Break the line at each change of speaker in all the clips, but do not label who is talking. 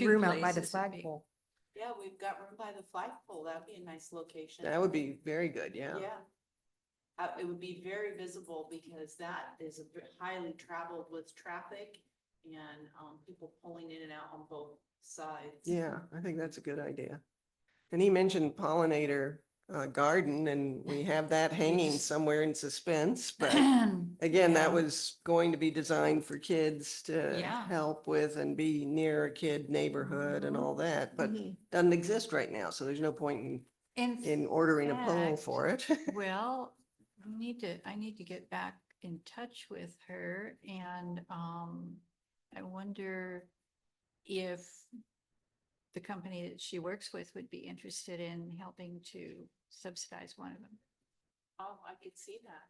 two
room out by the
places would be-
flagpole.
Yeah, we've got room by the flagpole. That'd be a nice location.
That would be very good, yeah.
Yeah. Uh, it would be very visible because that is a ve- highly traveled with traffic and, um, people pulling in and out on both sides.
Yeah, I think that's a good idea. And he mentioned pollinator uh garden and we have that hanging somewhere in suspense, but again,
Yeah.
that was going to be designed for kids to
Yeah.
help with and be near a kid neighborhood and
Mhm.
all that, but
Mhm.
doesn't exist right now, so there's no point in
In
in ordering a pole
fact,
for it.
Well, we need to, I need to get back in touch with her and um, I wonder if the company that she works with would be interested in helping to subsidize one of them.
Oh, I could see that.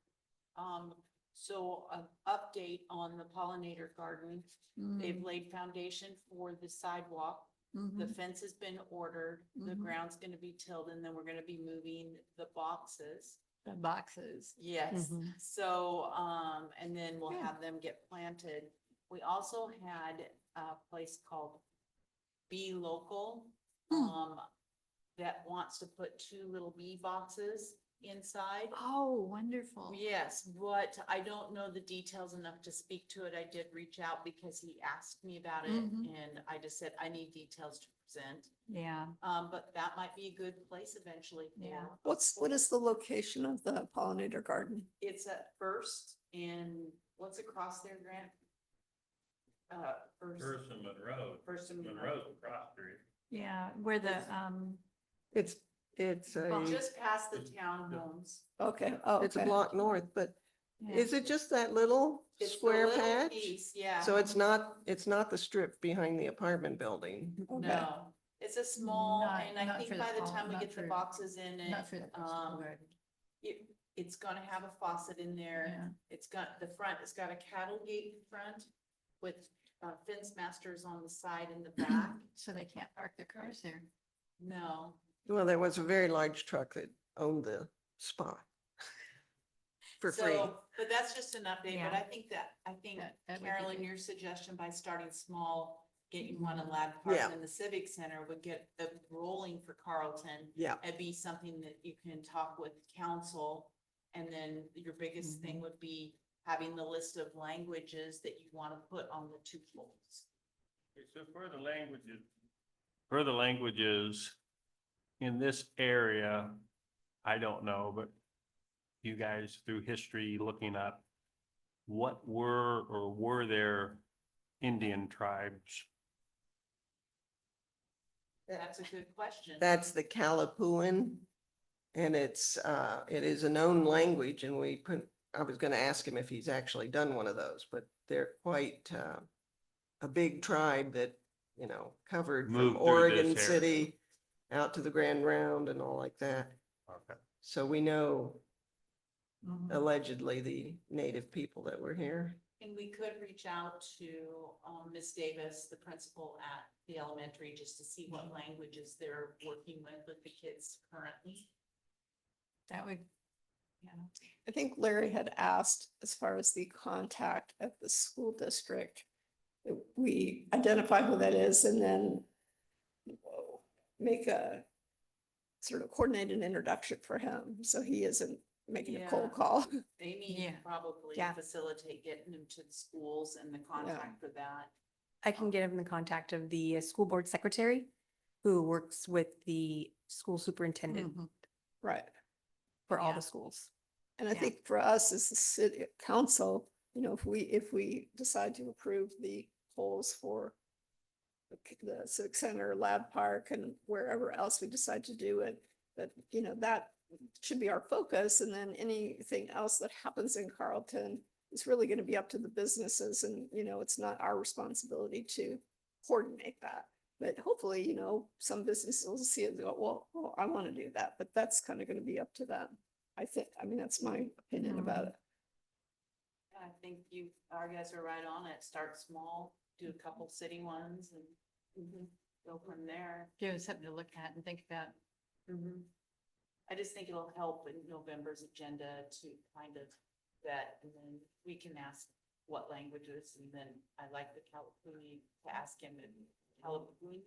Um, so an update on the pollinator garden.
Hmm.
They've laid foundation for the sidewalk. The
Mhm.
fence has been ordered. The
Mhm.
ground's gonna be tilled and then we're gonna be moving the boxes.
The boxes.
Yes,
Mm-hmm.
Mhm.
so, um, and then we'll
Yeah.
have them get planted. We also had a place called Bee Local,
Hmm.
um, that wants to put two little bee boxes inside.
Oh, wonderful.
Yes, but I don't know the details enough to speak to it. I did reach out because he asked me about it
Mhm.
and I just said, I need details to present.
Yeah.
Um, but that might be a good place eventually
Yeah.
for
What's, what is the location of the pollinator garden?
It's at First and what's across there, Grant? Uh, First,
First and Monroe,
First and
Monroe's across the street.
Yeah, where the,
It's-
um,
It's, it's
Well,
a,
Just past the townhomes.
Okay, oh,
it's a
okay.
block north, but
yeah.
is it just that little
It's the
square
little
patch?
piece, Yeah.
So it's not, it's not the strip behind the apartment building.
Okay.
No, it's a small,
Not-
and I
not for
think
the
by the
fall-
time we
not
get the
for-
boxes in and
Not for the first
um,
floor.
it, it's gonna have a faucet in there. It's got, the front, it's got a cattle gate in front with uh, fence masters on the side and the
Yeah.
back.
So they can't park their cars there.
No,
Well, there was a very large truck that owned the spot. For free.
so, but that's just an update,
Yeah.
but I think that, I think
That- that would be
Carolyn,
good.
your suggestion by starting small, getting one in Lad Park
Yeah.
and the Civic Center would get the rolling for Carlton.
Yeah,
It'd be something that you can talk with council. And then your biggest
Mm-hmm.
thing would be having the list of languages that you want to put on the two poles.
Okay, So for the languages, for the languages in this area, I don't know, but you guys through history looking up, what were or were there Indian tribes?
That's a good question.
that's the Kalapuan. And it's, uh, it is a known language and we put, I was gonna ask him if he's actually done one of those, but they're quite, uh, a big tribe that, you know, covered
Moved
from
through this
Oregon
area.
City out to the Grand Round and all like that.
Okay.
So we know Oh.
Mhm.
allegedly the native people that were here.
And we could reach out to um Ms. Davis, the principal at the elementary, just to see what languages they're working with with the kids currently.
That would, yeah.
I think Larry had asked as far as the contact at the school district. that We identify who that is and then whoa, make a sort of coordinated introduction for him, so he isn't making a cold
Yeah.
call.
They need
Yeah.
probably
Yeah.
facilitate getting them to the schools and the contact for that.
I can get him the contact of the uh, school board secretary who works with the school superintendent
Mhm.
Right.
for all
Yeah.
the schools.
And I
Yeah.
think for us as the city council, you know, if we, if we decide to approve the poles for the c- the civic center, lab park and wherever else we decide to do it, that, you know, that should be our focus. And then anything else that happens in Carlton is really going to be up to the businesses and, you know, it's not our responsibility to coordinate that. But hopefully, you know, some businesses will see it and go, well, well, I want to do that, but that's kind of going to be up to them. I think, I mean, that's my opinion about it.
I think you, our guys are right on it. Start small, do a couple city ones and go from there.
Give us something to look at and think about.
I just think it'll help in November's agenda to kind of that, and then we can ask what languages, and then I like the Kalapuni to ask him if Halloween